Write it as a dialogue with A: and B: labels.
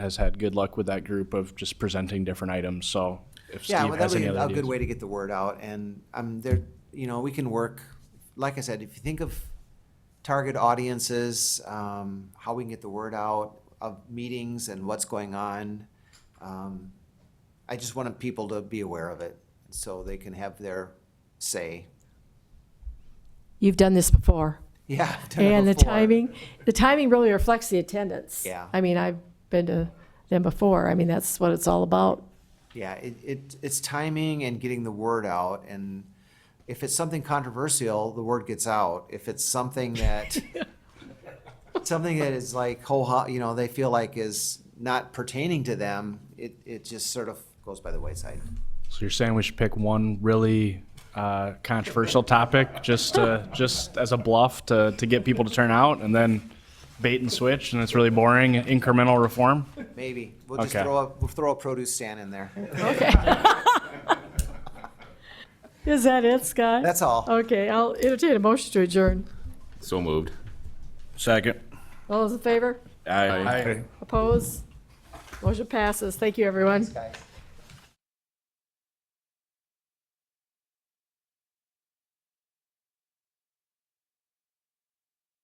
A: has had good luck with that group of just presenting different items, so if
B: Yeah,
A: Steve
B: well, that
A: has
B: would be
A: any other
B: a
A: ideas.
B: good way to get the word out, and um, there, you know, we can work, like I said, if you think of target audiences, um, how we can get the word out of meetings and what's going on. um, I just wanted people to be aware of it, so they can have their say.
C: You've done this before.
B: Yeah. I've done it
C: And the
B: before.
C: timing, the timing really reflects the attendance.
B: Yeah.
C: I mean, I've been to them before. I mean, that's what it's all about.
B: Yeah, it, it, it's timing and getting the word out, and if it's something controversial, the word gets out. If it's something that, something that is like whole, ho- you know, they feel like is not pertaining to them, it, it just sort of goes by the wayside.
A: So you're saying we should pick one really uh, controversial topic, just to, just as a bluff to, to get people to turn out, and then bait and switch, and it's really boring, incremental reform?
B: Maybe, we'll just
A: Okay.
B: throw a, we'll throw a produce stand in there.
C: Okay. Is that it, Scott?
B: That's all.
C: Okay, I'll entertain a motion to adjourn.
D: So moved.
E: Second.
C: All those in favor?
E: Aye.
C: Opposed? Motion passes. Thank you, everyone.
B: Guys.